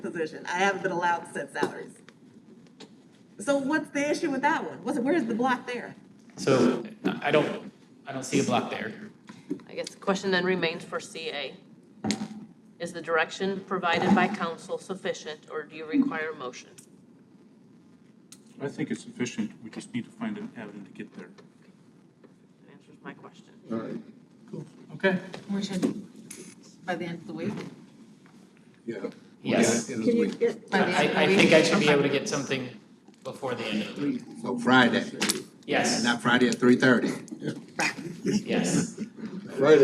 position. I haven't been allowed to set salaries. So what's the issue with that one? What's, where's the block there? So I I don't, I don't see a block there. I guess the question then remains for CA. Is the direction provided by council sufficient, or do you require a motion? I think it's sufficient, we just need to find an avenue to get there. That answers my question. All right, Okay. We should, by the end of the week? yeah. Yes. Yeah, it is week. get? By the end of the I, I week? think I should be able to get something before the end of the week. So Friday, Yes, not Friday at three thirty. yes.